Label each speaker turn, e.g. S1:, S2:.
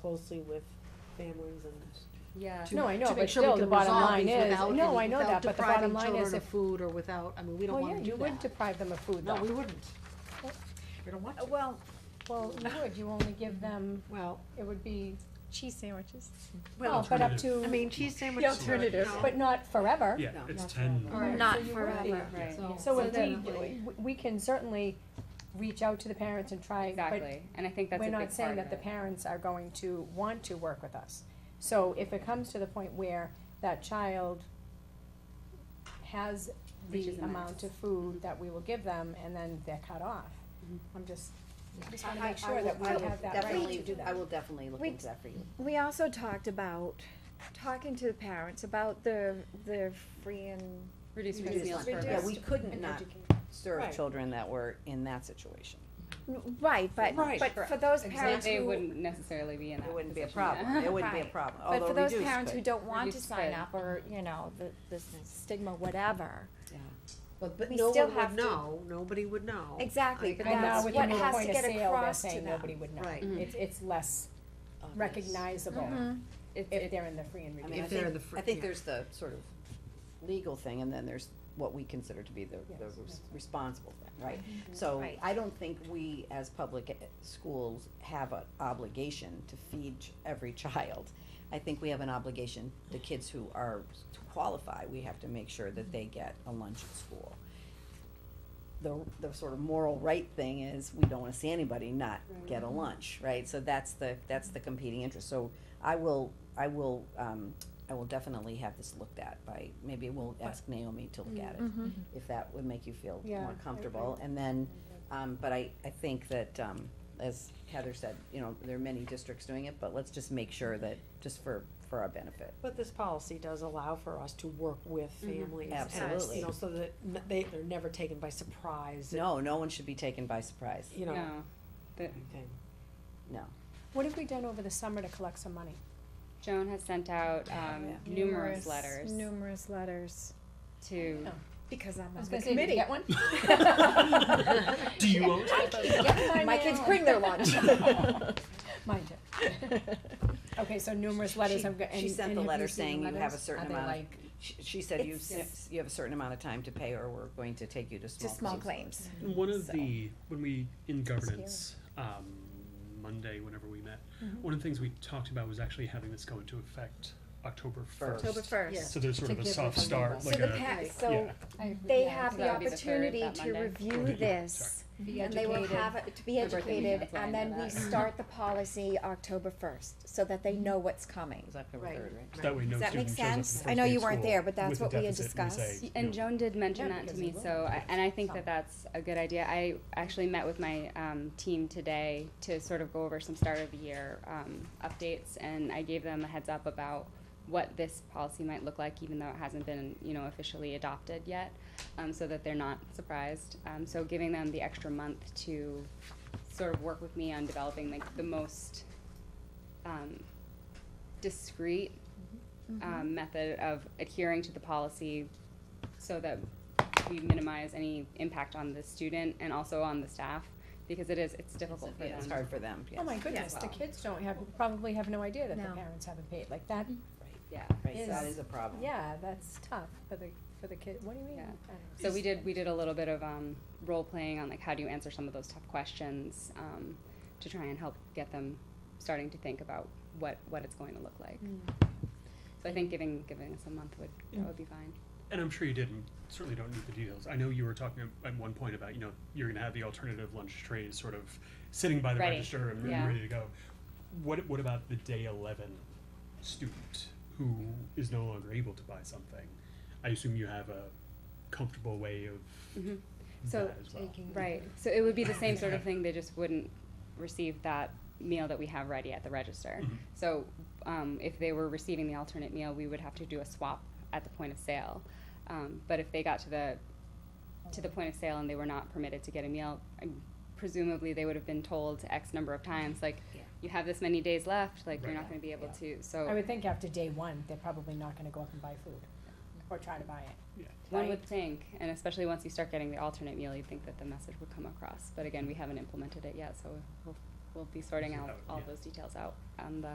S1: closely with families and.
S2: Yeah.
S3: No, I know,
S2: to make
S3: but
S2: sure we
S3: still, the
S2: can
S3: bottom
S2: resolve
S3: line
S2: these
S3: is-
S2: without-
S3: no, I know
S2: without
S3: that, but the
S2: depriving
S3: bottom line
S2: children
S3: is
S2: of
S3: if-
S2: Food or without, I mean, we don't
S3: Well,
S2: wanna
S3: yeah,
S2: do
S3: you would
S2: that.
S3: deprive them of food
S2: No, we
S3: though.
S2: wouldn't. We don't want to.
S1: Well,
S3: Well, you would, you only give them,
S2: Well,
S3: it would be,
S4: Cheese sandwiches.
S3: well,
S2: well,
S3: but up
S5: Alternative.
S3: to.
S2: I mean, cheese sandwich.
S3: The alternative,
S2: no.
S3: but not forever.
S5: Yeah,
S2: No,
S5: it's
S1: not
S5: ten.
S1: forever.
S2: All right,
S4: Not
S3: so you would be-
S4: forever.
S6: Right.
S2: So-
S3: So
S6: So
S3: if we,
S6: definitely.
S3: we- we can certainly reach out to the parents and try, but
S6: Exactly, and I think that's a
S3: we're
S6: big part
S3: not saying that
S6: of
S3: the
S6: it.
S3: parents are going to want to work with us. So if it comes to the point where that child has the
S6: Reaches the
S3: amount
S6: max.
S3: of food that we will give them and then they're cut off,
S6: Mhm.
S3: I'm just, just
S1: I,
S3: wanna
S1: I
S3: make sure that we
S1: will, I will
S3: have that right to
S1: definitely,
S3: do that.
S1: I will definitely look
S4: We-
S1: into that for you.
S4: We also talked about talking to the parents about the the free and
S6: Reduce
S1: Reduce
S6: meals
S1: lunch.
S6: per
S4: Reduce-
S1: Yeah, we
S6: visit.
S1: couldn't
S3: And
S1: not
S3: educate.
S1: serve
S2: Right.
S1: children that were in that situation.
S4: right, but
S1: Right.
S4: but for those
S2: Exactly.
S4: parents
S6: They
S4: who
S6: wouldn't necessarily be in that
S1: It wouldn't be a
S6: position, yeah.
S1: problem, it wouldn't be a
S4: Right.
S1: problem,
S4: but
S1: although
S4: for those
S1: reduced
S4: parents who
S1: could.
S4: don't want to
S6: Reduced
S4: sign
S6: could.
S4: up or you know the this stigma whatever.
S2: But, but
S4: we
S2: no
S4: still
S2: one
S4: have
S2: would
S4: to-
S2: know, nobody would know.
S4: Exactly,
S6: I
S4: but
S6: agree.
S3: And now
S4: that's
S3: with
S4: what
S3: the new
S4: has to
S3: point of
S4: get
S3: sale, they're
S4: across to
S3: saying nobody
S4: them.
S3: would know.
S2: Right.
S1: Mm.
S6: Mhm.
S3: It's, it's less
S1: Obvious.
S3: recognizable
S4: Mhm.
S6: It's-
S3: if
S6: it's-
S3: they're in the free and
S1: I mean,
S3: reduced.
S1: I
S2: If they're in
S1: think,
S2: the fr-
S1: I think
S2: yeah.
S1: there's the sort of legal thing, and then there's what we consider to be the,
S3: Yes,
S1: the res-
S3: that's
S1: responsible thing, right?
S2: Mm-hmm.
S1: So,
S4: Right.
S1: I don't think we, as public eh, schools, have an obligation to feed ch- every child. I think we have an obligation, the kids who are, to qualify, we have to make sure that they get a lunch at school. The, the sort of moral right thing is, we don't wanna see anybody not get a lunch, right? So that's the, that's the competing interest, so I will, I will, um, I will definitely have this looked at by, maybe we'll ask Naomi to look at it,
S4: Mhm.
S1: if that would make you feel
S3: Yeah, I
S1: more
S3: agree.
S1: comfortable, and then, um, but I, I think that, um, as Heather said, you know, there are many districts doing it, but let's just make sure that, just for, for our benefit.
S7: But this policy does allow for us to work with
S2: Mm-hmm.
S7: families. and,
S1: Absolutely.
S7: You know, so that n- they, they're never taken by surprise. and,
S1: No, no one should be taken by surprise,
S7: You know,
S6: No, The-
S7: okay.
S1: no.
S3: What have we done over the summer to collect some money?
S6: Joan has sent out, um, numerous letters
S4: Numerous letters.
S6: to,
S4: Because I'm
S3: I
S4: on
S3: was
S4: the
S3: gonna say, did you
S4: committee.
S3: get one?
S5: Do you own?
S3: My
S4: kids bring
S3: their lunch. Mine too. Okay, so numerous letters,
S1: She-
S3: I'm, go- and.
S1: She sent
S3: and
S1: the
S3: have you
S1: letter
S3: seen
S1: saying
S3: the
S1: you have
S3: letters?
S1: a certain
S3: Are they
S1: amount of,
S3: like-
S1: she, she said you,
S4: It's-
S1: s- you have a certain amount of time to pay or we're going to take you to small.
S4: Just small claims.
S5: One of
S4: So-
S5: the when we in governance um, Monday, whenever we met,
S4: Mm-hmm.
S5: one of the things we talked about was actually having this go into effect October first.
S4: October first.
S5: So there's sort
S3: To
S5: of a
S3: give
S5: soft
S3: us a
S5: start,
S3: little
S4: So
S5: like
S4: the
S5: a
S4: pa-
S5: yeah.
S4: so
S3: I-
S4: they
S3: yeah,
S4: have
S3: so
S4: the
S3: that-
S6: that'll be the third,
S4: opportunity
S6: that
S4: to
S6: Monday.
S4: review
S5: Right, yeah,
S4: this.
S3: Be
S4: And they will
S3: educated.
S4: have, it to be
S6: Remember that you
S4: educated,
S6: have to plan
S4: and then
S6: for
S4: we
S6: that.
S4: start the policy October first, so that they know what's coming.
S1: It's October
S2: Right.
S1: third, right?
S5: So that way no
S4: Does that
S5: student
S4: make
S5: shows up
S4: sense?
S5: the
S4: I
S5: first
S4: know
S5: day
S4: you
S5: of
S4: weren't
S5: school
S4: there, but that's
S5: with a
S4: what we had
S5: deficit and say,
S4: discussed.
S5: you know,
S6: and Joan did mention
S3: Yeah,
S6: that to
S3: because
S6: me,
S3: it will.
S6: so, I- and I think that that's a good idea. I actually met with my, um, team today to sort of go over some start of the year, um, updates, and I gave them a heads up about what this policy might look like, even though it hasn't been, you know, officially adopted yet, um, so that they're not surprised. Um, so giving them the extra month to sort of work with me on developing like the most, um, discreet um, method of adhering to the policy so that we minimize any impact on the student and also on the staff, because it is, it's difficult for
S1: Yeah, It's
S6: them.
S1: hard for them, yes.
S3: Oh my goodness, the
S6: Wow.
S3: kids don't have, probably have no idea that the
S4: No.
S3: parents haven't paid, like that,
S6: Yeah.
S1: Right, that
S3: is-
S1: is a problem.
S3: yeah, that's tough for the, for the kid, what do you mean?
S6: Yeah.
S3: I don't know.
S6: So we did, we did a little bit of, um, role playing on like how do you answer some of those tough questions, um, to try and help get them starting to think about what, what it's going to look
S3: Mm-hmm.
S6: like. So I think giving, giving us a month would, that would be fine.
S5: And I'm sure you didn't, certainly don't need the details. I know you were talking at- at one point about, you know, you're gonna have the alternative lunch trays sort of sitting by the
S6: Ready,
S5: register and and
S6: yeah.
S5: ready to go. What, what about the day eleven student who is no longer able to buy something? I assume you have a comfortable way of
S6: Mhm. So
S5: that as well.
S6: Right, so it would be the same sort of thing, they just wouldn't receive that meal that we have ready at the register.
S5: Mhm.
S6: So, um, if they were receiving the alternate meal, we would have to do a swap at the point of sale. Um, but if they got to the, to the point of sale and they were not permitted to get a meal, I'm- presumably they would have been told X number of times, like,
S1: Yeah.
S6: you have this many days left, like, you're
S5: Right.
S6: not gonna be able to, so.
S3: I would think after day one, they're probably not gonna go up and buy food, or try to buy it.
S6: One
S3: right?
S6: would think, and especially once you start getting the alternate meal, you'd think that the message would come across. But again, we haven't implemented it yet, so we'll, we'll be sorting out all
S5: Yeah.
S6: those details out on the